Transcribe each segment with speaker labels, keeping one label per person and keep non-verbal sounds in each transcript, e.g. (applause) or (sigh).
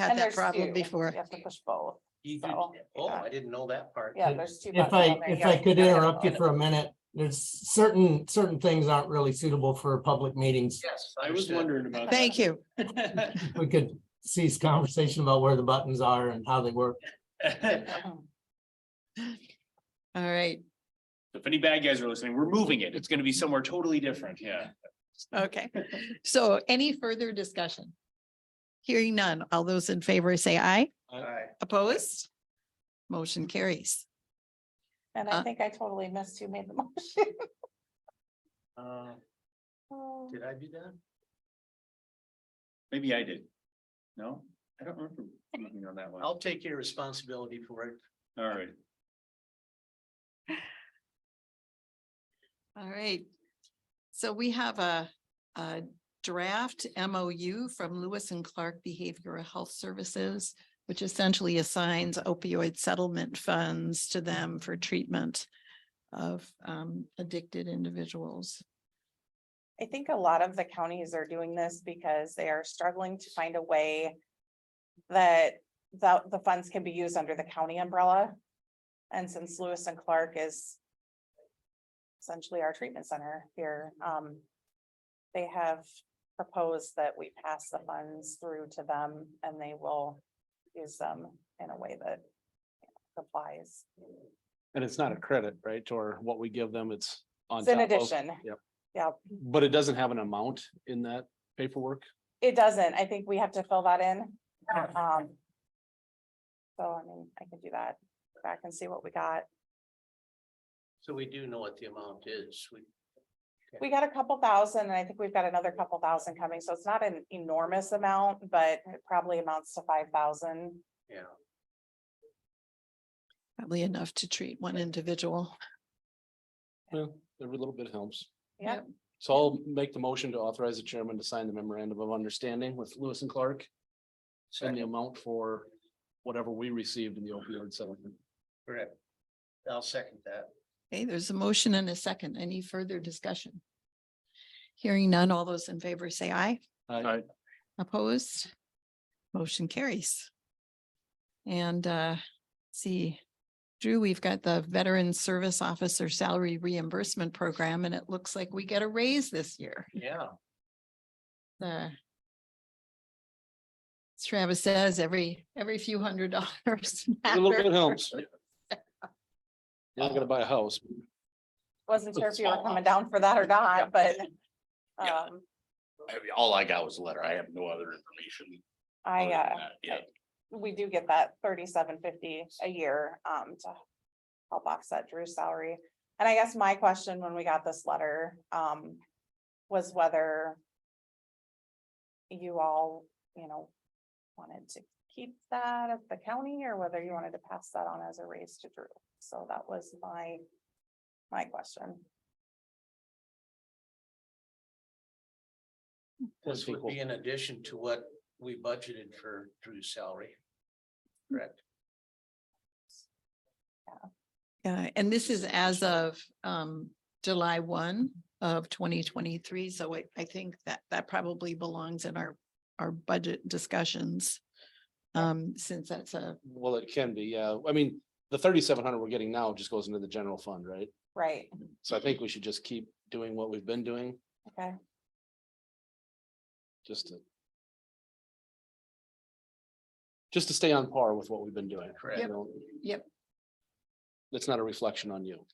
Speaker 1: had
Speaker 2: And
Speaker 1: that
Speaker 2: there's
Speaker 1: problem
Speaker 2: two.
Speaker 1: before.
Speaker 2: You have to push both.
Speaker 3: You do,
Speaker 2: So,
Speaker 3: oh,
Speaker 2: yeah.
Speaker 3: I didn't know that part.
Speaker 2: Yeah, there's two.
Speaker 4: If
Speaker 2: buttons on
Speaker 4: I,
Speaker 2: there.
Speaker 4: if
Speaker 2: Yeah,
Speaker 4: I could
Speaker 2: gotta
Speaker 4: interrupt you
Speaker 2: vote.
Speaker 4: for a minute, there's certain, certain things aren't really suitable for public
Speaker 5: (laughs)
Speaker 4: meetings.
Speaker 3: Yes.
Speaker 6: I was
Speaker 3: understood.
Speaker 6: wondering about.
Speaker 1: Thank you.
Speaker 4: We could cease conversation about where the buttons are and how they work.
Speaker 6: that. (laughs)
Speaker 1: All right,
Speaker 6: If any bad guys are listening, we're moving it. It's gonna be somewhere totally different, yeah.
Speaker 2: (laughs)
Speaker 1: okay. So any further discussion? Hearing none. All those in favor say aye.
Speaker 3: Alright.
Speaker 1: Opposed? Motion carries.
Speaker 2: (laughs) And
Speaker 1: Uh,
Speaker 2: I think I totally missed who made the (laughs) motion.
Speaker 3: Uh,
Speaker 5: Oh.
Speaker 3: Did I do that?
Speaker 6: Maybe I did. No, I don't remember moving on that one.
Speaker 3: I'll take your responsibility for it.
Speaker 6: All right.
Speaker 1: All right. So we have a, a draft MOU from Lewis and Clark Behavioral Health Services, which essentially assigns opioid settlement funds to them for treatment of um, addicted individuals.
Speaker 2: I think a lot of the counties are doing this because they are struggling to find a way that the, the funds can be used under the county umbrella. And since Lewis and Clark is essentially our treatment center here, um, they have proposed that we pass the funds through to them and they will use them in a way that applies.
Speaker 5: And it's not a credit, right? Or what we give them, it's on
Speaker 2: It's in
Speaker 5: top of,
Speaker 2: addition.
Speaker 5: yep.
Speaker 2: Yeah.
Speaker 5: but it doesn't have an amount in that paperwork.
Speaker 2: It doesn't. I think we have to fill that in. Um. So I mean, I can do that. Go Back and see what we got.
Speaker 3: So we do know what the amount is. We,
Speaker 2: We got a couple thousand and I think we've got another couple thousand coming. So it's not an enormous amount, but it probably amounts to five thousand.
Speaker 3: yeah.
Speaker 1: Probably enough to treat one individual.
Speaker 5: Well, every little bit helps.
Speaker 2: Yeah,
Speaker 5: So I'll make the motion to authorize the chairman to sign the memorandum of understanding with Lewis and Clark. And the
Speaker 3: Second.
Speaker 5: amount for whatever we received in the opioid settlement.
Speaker 3: Correct. I'll second that.
Speaker 1: Okay, there's a motion and a second. Any further discussion? Hearing none, all those in favor say aye.
Speaker 5: I-
Speaker 1: Opposed? Motion carries. And uh, see, Drew, we've got the Veteran Service Officer Salary Reimbursement Program, and it looks like we get a raise this year.
Speaker 3: Yeah.
Speaker 1: The- as Travis says, every, every few hundred dollars. (laughs)
Speaker 5: A little bit
Speaker 1: matter.
Speaker 2: (laughs)
Speaker 5: helps. Not gonna buy a house.
Speaker 2: wasn't sure if you were coming down for that or not, but.
Speaker 7: Yeah.
Speaker 2: Um,
Speaker 7: I mean, all I got was a letter. I have no other information.
Speaker 2: I,
Speaker 7: other than
Speaker 2: uh,
Speaker 7: that. Yeah,
Speaker 2: we do get that thirty-seven fifty a year, um, to help offset Drew's salary. And I guess my question when we got this letter, um, was whether you all, you know, wanted to keep that at the county or whether you wanted to pass that on as a raise to Drew. So that was my, my question.
Speaker 3: This would
Speaker 5: Equal.
Speaker 3: be in addition to what we budgeted for Drew's salary. Correct.
Speaker 1: Yeah, Uh, and this is as of um, July one of twenty twenty-three, so I, I think that that probably belongs in our, our budget discussions. Um, since that's a (laughs)
Speaker 5: Well, it can be, yeah. I mean, the thirty-seven hundred we're getting now just goes into the general fund, right?
Speaker 2: Right,
Speaker 5: So I think we should just keep doing what we've been doing,
Speaker 2: okay.
Speaker 5: just to. Just to stay on par with what we've been doing.
Speaker 3: Correct.
Speaker 5: you know?
Speaker 1: Yep.
Speaker 5: That's not a reflection on you.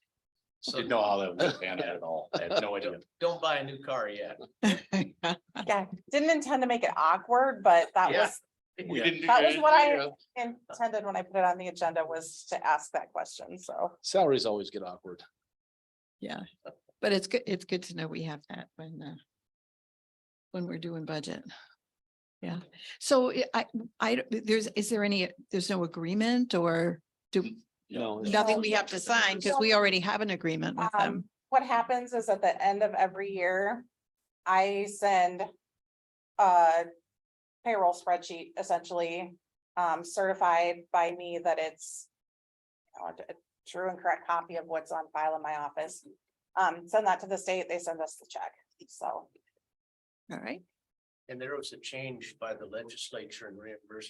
Speaker 3: So
Speaker 7: Didn't know how that was planned out at all. I had no idea.
Speaker 3: don't buy a new car yet.
Speaker 2: Yeah, didn't intend to make it awkward, but that
Speaker 3: Yeah.
Speaker 2: was
Speaker 7: We didn't do
Speaker 2: That was
Speaker 7: that.
Speaker 2: what I intended when I put it on the agenda was to ask that question, so.
Speaker 5: Salaries always get awkward.
Speaker 1: But it's good, it's good to know we have that when, uh, when we're doing budget. Yeah, so I- I, I, don't- there's, is there any, there's no agreement or do,
Speaker 5: No. it's-
Speaker 1: nothing we have to sign because we already have an agreement with
Speaker 2: Um,
Speaker 1: them.
Speaker 2: what happens is at the end of every year, I send a payroll spreadsheet essentially, um, certified by me that it's uh, a true and correct copy of what's on file in my office. Um, send that to the state, they send us the check, so.
Speaker 1: All right.
Speaker 3: And there was a change by the legislature in reimbursement